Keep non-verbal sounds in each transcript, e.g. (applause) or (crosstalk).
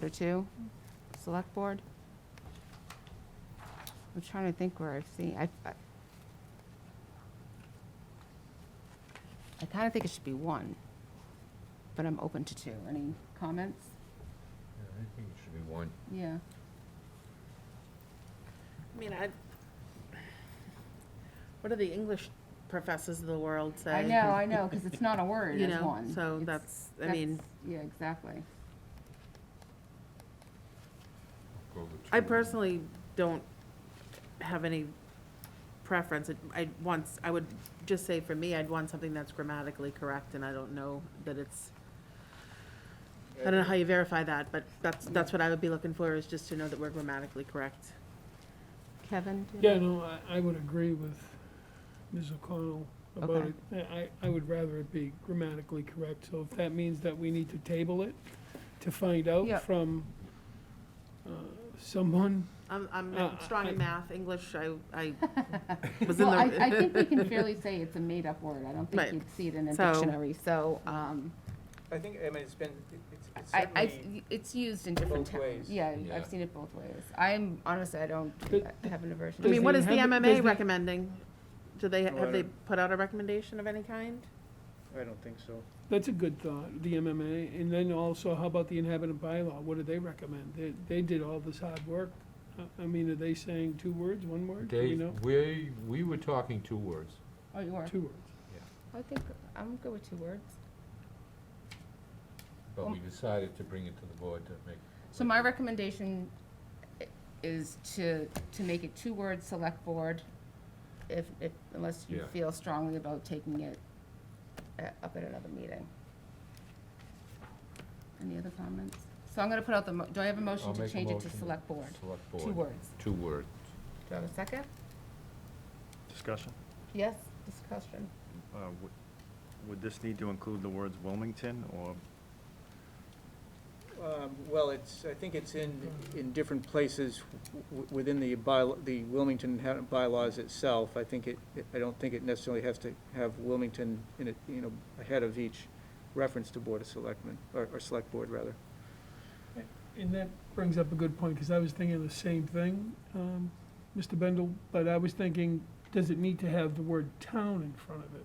Chapter Two, Select Board. I'm trying to think where I've seen, I, I- I kind of think it should be one, but I'm open to two. Any comments? I think it should be one. Yeah. I mean, I, what do the English professors of the world say? I know, I know, because it's not a word, (laughs) You it's know, one. so It's- that's, I mean, that's- Yeah, exactly. Go with I two. personally don't have any preference. I once, I would just say for me, I'd want something that's grammatically correct, and I don't know that it's, I don't know how you verify that, but that's, that's what I would be looking for, is just to know that we're grammatically correct. Kevin? do you- Yeah, no, I, I would agree with Ms. O'Connell about Okay. it. I, I would rather it be grammatically correct, so if that means that we need to table it to find Yeah. out from uh, someone, I'm, I'm Uh, strong I- in math, English, I, (laughs) I was in Well, I, I the, think we (laughs) can fairly say it's a made-up word. I don't think Right. you'd see it in a So- dictionary, so, um, I think, I mean, it's been, it- it's it's I, I, certainly, it's used in different both towns. ways. Yeah, Yeah. I've seen it both ways. I'm, honestly, I don't But- have an aversion. to I Does mean, what the is the inhabit- does MMA the- recommending? Do they, No, I have they don't- put out a recommendation of any kind? I don't think so. that's a good thought, the MMA. And then also, how about the inhabitant bylaw? What do they recommend? They, they did all this hard work. I- I mean, are they saying two words, one word? Do we They, know? we, we were talking two words. Oh, you are? Two words. I think, I'm good with two words. But Oh. we decided to bring it to the board to make. So my recommendation i- is to, to make it two-word select board, if, if, unless you Yeah. feel strongly about taking it a- up at another meeting. Any other comments? So I'm gonna put out the, mo- do I have a I'll motion to make a change it to motion. select board? Select Two board. words. Two words. Do I have a second? Discussion. Yes, discussion. Uh, would- Would this need to include the words Wilmington or? Um, Well, it's, I think it's in, in different places w- w- within the by, the Wilmington ha- bylaws itself. I think it, it- I don't think it necessarily has to have Wilmington in it, you know, ahead of each reference to Board of Selectmen, or, or Select Board, rather. And that brings up a good point, because I was thinking the same thing, um, Mr. Bendel, but I was thinking, does it need to have the word town in front of it?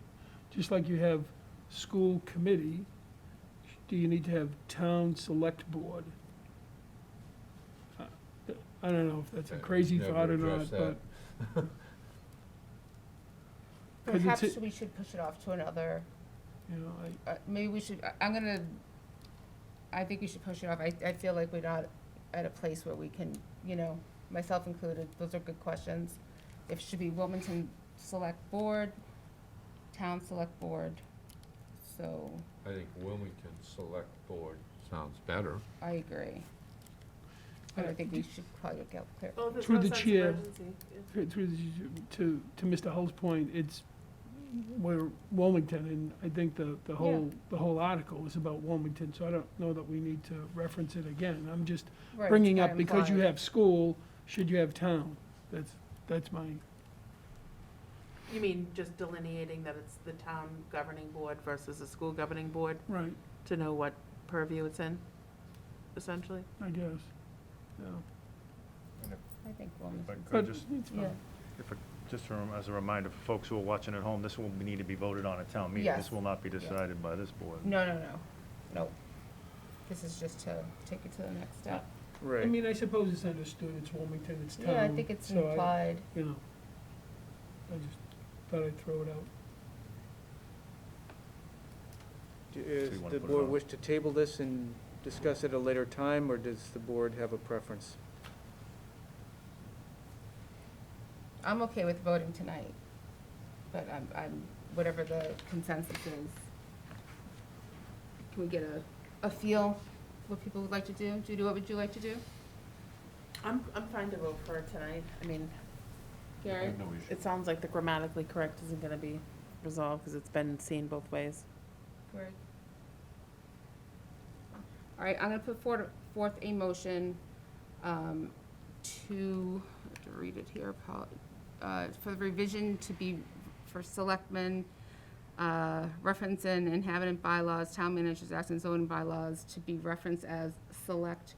Just like you have school committee, do you need to have town select board? Uh, I don't know if that's a Uh, crazy never thought or not, addressed but, that. 'Cause it's Perhaps a- we should push it off to another you know, I, uh, maybe we should, I- I'm gonna, I think we should push it off. I, I feel like we're not at a place where we can, you know, myself included, those are good questions. If it should be Wilmington Select Board, Town Select Board, so I think Wilmington Select Board sounds better. I agree. But I think we should probably get clear. Through the chair. Through through the- to, to Mr. Hull's point, it's, we're Wilmington, and I think the, the whole, the whole article is about Wilmington, so I don't know that we need to reference it again. I'm just Right, bringing it's up, not because you implied. have school, should you have town? That's, that's my, You mean just delineating that it's the town governing board versus the school governing board right, to know what purview it's in, essentially? I guess. Yeah. I think Wilmington, But But could just, it's yeah, fine. if, it- just for- as a reminder for folks who are watching at home, this will need to be voted on at town meeting. Yes. This will not be decided by this board. no, no, no, no. This is just to take it to the next step. I mean, I suppose it's understood, it's Wilmington, it's town. Yeah, I think it's Um, so I- implied. You know, I just thought I'd throw it out. Does wanna the put it board on? wish to table this and discuss at a later time, or does the board have a preference? I'm okay with voting tonight, but I'm, I'm, whatever the consensus is. Can we get a, a feel what people would like to do? Judy, what would you like to do? I'm, I'm fine to vote for it tonight. I mean, Gary? No issue. it sounds like the grammatically correct isn't gonna be resolved, because it's been seen both ways. Greg? All right, I'm gonna put forth, forth a motion, um, to, I have to read it here, apo- uh, for the revision to be for selectmen, uh, reference in inhabitant bylaws, town managers, acts and zoning bylaws to be referenced as select